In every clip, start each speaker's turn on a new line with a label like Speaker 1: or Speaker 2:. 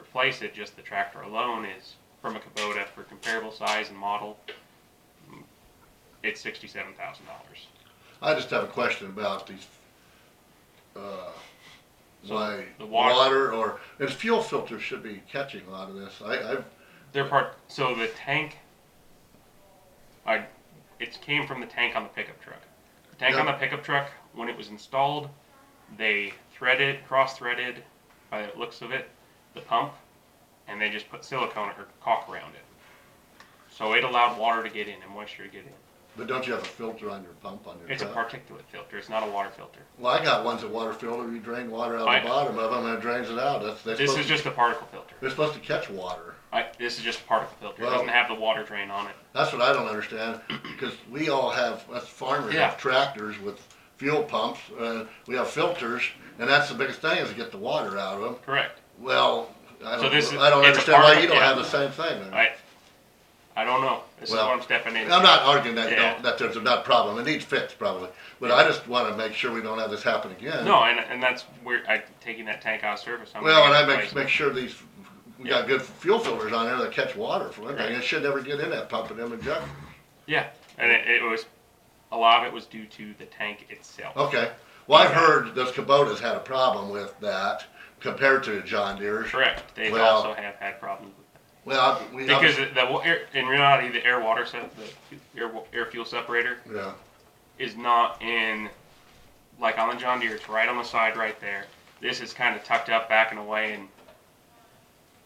Speaker 1: replace it, just the tractor alone is from a Kubota for comparable size and model. It's sixty-seven thousand dollars.
Speaker 2: I just have a question about these, uh,
Speaker 1: So,
Speaker 2: why
Speaker 1: the water-
Speaker 2: water or, and fuel filters should be catching a lot of this. I, I've,
Speaker 1: They're part. So the tank, I, it came from the tank on the pickup truck. The tank on the
Speaker 2: Yeah.
Speaker 1: pickup truck, when it was installed, they threaded, cross-threaded, by the looks of it, the pump, and they just put silicone or caulk around it. So it allowed water to get in and moisture to get in.
Speaker 2: but don't you have a filter on your pump on your
Speaker 1: It's a
Speaker 2: truck?
Speaker 1: particulate filter. It's not a water filter.
Speaker 2: Well, I got ones that water filter, you drain water out
Speaker 1: I-
Speaker 2: of the bottom of them and it drains it out. That's, that's
Speaker 1: This
Speaker 2: supposed
Speaker 1: is
Speaker 2: to,
Speaker 1: just a particle filter.
Speaker 2: they're supposed to catch water.
Speaker 1: I, this is just a particle filter. It
Speaker 2: Well-
Speaker 1: doesn't have the water drain on it.
Speaker 2: That's what I don't understand, because we all have, us farmers
Speaker 1: Yeah.
Speaker 2: have tractors with fuel pumps, uh, we have filters, and that's the biggest thing is to get the water out of them.
Speaker 1: Correct.
Speaker 2: Well, I
Speaker 1: So
Speaker 2: don't,
Speaker 1: this is-
Speaker 2: I don't
Speaker 1: it's a
Speaker 2: understand why you
Speaker 1: particle-
Speaker 2: don't have
Speaker 1: yeah.
Speaker 2: the same thing.
Speaker 1: I, I don't know. This is
Speaker 2: Well,
Speaker 1: what I'm stepping into.
Speaker 2: I'm not arguing that,
Speaker 1: Yeah.
Speaker 2: don't- that there's not a problem, it needs fixed probably, but I just wanna make sure we don't have this happen again.
Speaker 1: No, and, and that's where I taking that tank out of service. I'm
Speaker 2: Well, and I
Speaker 1: gonna
Speaker 2: make,
Speaker 1: replace
Speaker 2: make sure these, we got good fuel filters on there that catch water for one thing,
Speaker 1: Right.
Speaker 2: it should never get in that pump and them injectors.
Speaker 1: it. Yeah, and it, it was a lot of it was due to the tank itself.
Speaker 2: Okay. Well, I've
Speaker 1: Okay.
Speaker 2: heard those Kubotas had a problem with that compared to John Deere's.
Speaker 1: Correct. They
Speaker 2: Well-
Speaker 1: also have had problems with that.
Speaker 2: Well, I- we
Speaker 1: because the wa- air, in reality the air water se- the air, wa- air fuel separator
Speaker 2: yeah,
Speaker 1: is not in like on the John Deere. It's right on the side, right there. This is kind of tucked up back and away, and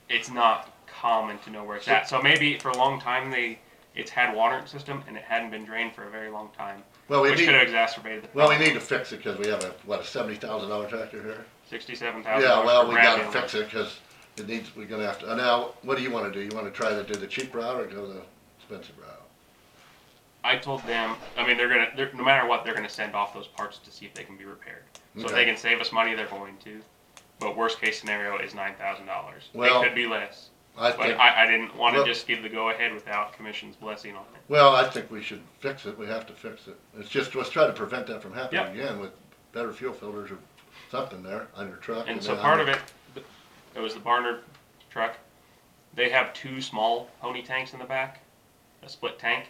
Speaker 1: it's not common to know where it's at. So maybe for a long time they it's had water in the system and it hadn't been drained for a very long time.
Speaker 2: well we
Speaker 1: which could
Speaker 2: need
Speaker 1: have exacerbated the
Speaker 2: well we
Speaker 1: problem.
Speaker 2: need to fix it because we have a what a seventy thousand dollar tractor here.
Speaker 1: Sixty-seven thousand.
Speaker 2: Yeah, well we got to fix it because it needs we're gonna have to. uh, Now, what do you want to do? You want to try to do the cheap route or go the expensive route?
Speaker 1: I told them. I mean, they're gonna. They're, no matter what, they're gonna send off those parts to see if they can be repaired. So if
Speaker 2: Okay.
Speaker 1: they can save us money, they're going to. But worst case scenario is nine thousand dollars.
Speaker 2: Well,
Speaker 1: it could be less.
Speaker 2: I
Speaker 1: But
Speaker 2: think
Speaker 1: I, I didn't want to
Speaker 2: Look-
Speaker 1: just give the go ahead without commission's blessing on it.
Speaker 2: well I think we should fix it. We have to fix it. It's just let's try to prevent that from happening
Speaker 1: Yeah.
Speaker 2: again with better fuel filters or something there on your truck.
Speaker 1: And so
Speaker 2: then
Speaker 1: part of
Speaker 2: on
Speaker 1: it, it was the Barnard truck. They have two small pony tanks in the back, a split tank,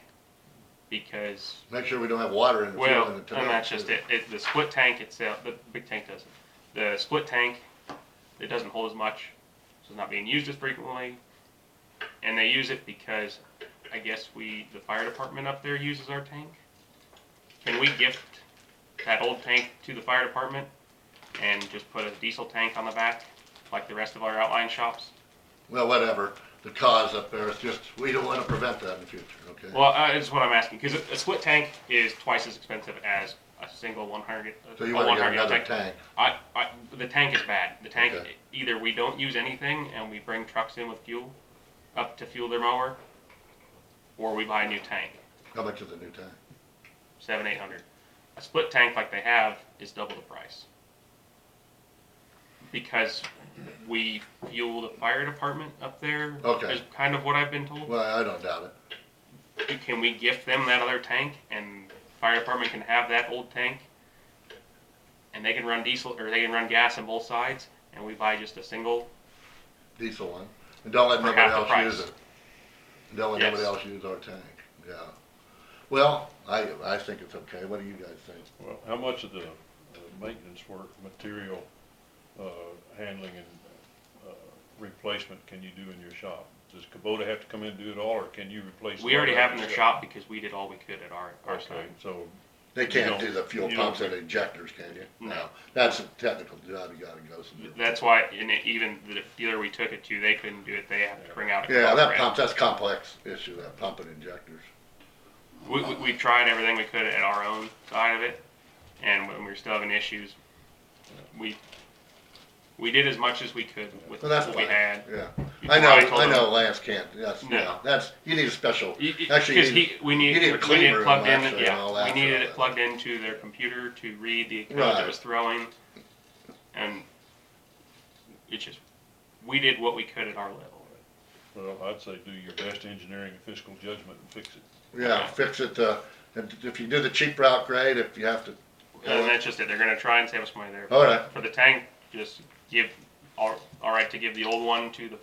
Speaker 1: because
Speaker 2: your- Make sure we don't have water in the
Speaker 1: Well,
Speaker 2: fuel in
Speaker 1: and
Speaker 2: the tank.
Speaker 1: that's just
Speaker 2: too.
Speaker 1: it. it. The split tank itself, the big tank doesn't. The split tank, it doesn't hold as much, so it's not being used as frequently. And they use it because, I guess we, the fire department up there uses our tank. Can we gift that old tank to the fire department and just put a diesel tank on the back, like the rest of our outline shops?
Speaker 2: Well, whatever, the cause up there, it's just, we don't wanna prevent that in the future, okay?
Speaker 1: Well, uh, it's what I'm asking because a, a split tank is twice as expensive as a single 100.
Speaker 2: So you
Speaker 1: a
Speaker 2: wanna
Speaker 1: 100
Speaker 2: get another
Speaker 1: tank.
Speaker 2: tank,
Speaker 1: I, I the tank is bad. The tank
Speaker 2: Okay.
Speaker 1: either we don't use anything and we bring trucks in with fuel up to fuel their mower, or we buy a new tank,
Speaker 2: how much is a new tank?
Speaker 1: seven eight hundred. A split tank like they have is double the price because we fuel the fire department up there.
Speaker 2: Okay.
Speaker 1: is kind of what I've been told.
Speaker 2: Well, I don't doubt it,
Speaker 1: Can we gift them that other tank and fire department can have that old tank? And they can run diesel or they can run gas on both sides and we buy just a single
Speaker 2: diesel one, and don't let
Speaker 1: For
Speaker 2: nobody
Speaker 1: half the
Speaker 2: else
Speaker 1: price.
Speaker 2: use it. Don't let
Speaker 1: Yes.
Speaker 2: nobody else use our tank, yeah. Well, I, I think it's okay, what do you guys think?
Speaker 3: Well, how much of the, the maintenance work, material, uh, handling and, uh, replacement can you do in your shop? Does Kubota have to come in and do it all, or can you replace?
Speaker 1: We
Speaker 3: all
Speaker 1: already
Speaker 3: that
Speaker 1: have in their shop because we did all we could at our, our
Speaker 3: Okay,
Speaker 1: side.
Speaker 3: so,
Speaker 2: They can't do
Speaker 3: don't-
Speaker 2: the fuel
Speaker 3: you don't
Speaker 2: pumps or
Speaker 3: think-
Speaker 2: the injectors, can you?
Speaker 1: No.
Speaker 2: That's a technical job, you gotta go through.
Speaker 1: That's why, and it- even the dealer we took it to, they couldn't do it. They have to bring out. a
Speaker 2: Yeah, that
Speaker 1: corporate.
Speaker 2: pump, that's complex issue, that pump and injectors.
Speaker 1: We, we, we tried everything we could at our own side of it, and when we were still having issues, we we did as much as we could with
Speaker 2: Well, that's
Speaker 1: what
Speaker 2: fine.
Speaker 1: we had.
Speaker 2: Yeah,
Speaker 1: Before
Speaker 2: I know,
Speaker 1: told
Speaker 2: I
Speaker 1: him-
Speaker 2: know Lance can't, that's,
Speaker 1: No.
Speaker 2: yeah, that's, you need a special,
Speaker 1: Y- y-
Speaker 2: Actually,
Speaker 1: 'cause
Speaker 2: you
Speaker 1: he, we need,
Speaker 2: you need a
Speaker 1: we
Speaker 2: clean
Speaker 1: need it
Speaker 2: room,
Speaker 1: plugged in.
Speaker 2: actually, and
Speaker 1: yeah,
Speaker 2: all that
Speaker 1: we needed
Speaker 2: sort of
Speaker 1: it
Speaker 2: thing.
Speaker 1: plugged into their computer to read the code
Speaker 2: Right.
Speaker 1: that was throwing. And it just, we did what we could at our level.
Speaker 3: well, I'd say do your best engineering and fiscal judgment and fix it.
Speaker 2: Yeah, fix it, uh, and if you do the cheap route, great, if you have to,
Speaker 1: And that's just it. They're gonna
Speaker 2: Oh.
Speaker 1: try and save us money there.
Speaker 2: all right.
Speaker 1: For the tank, just give, all, all right, to give the old one to the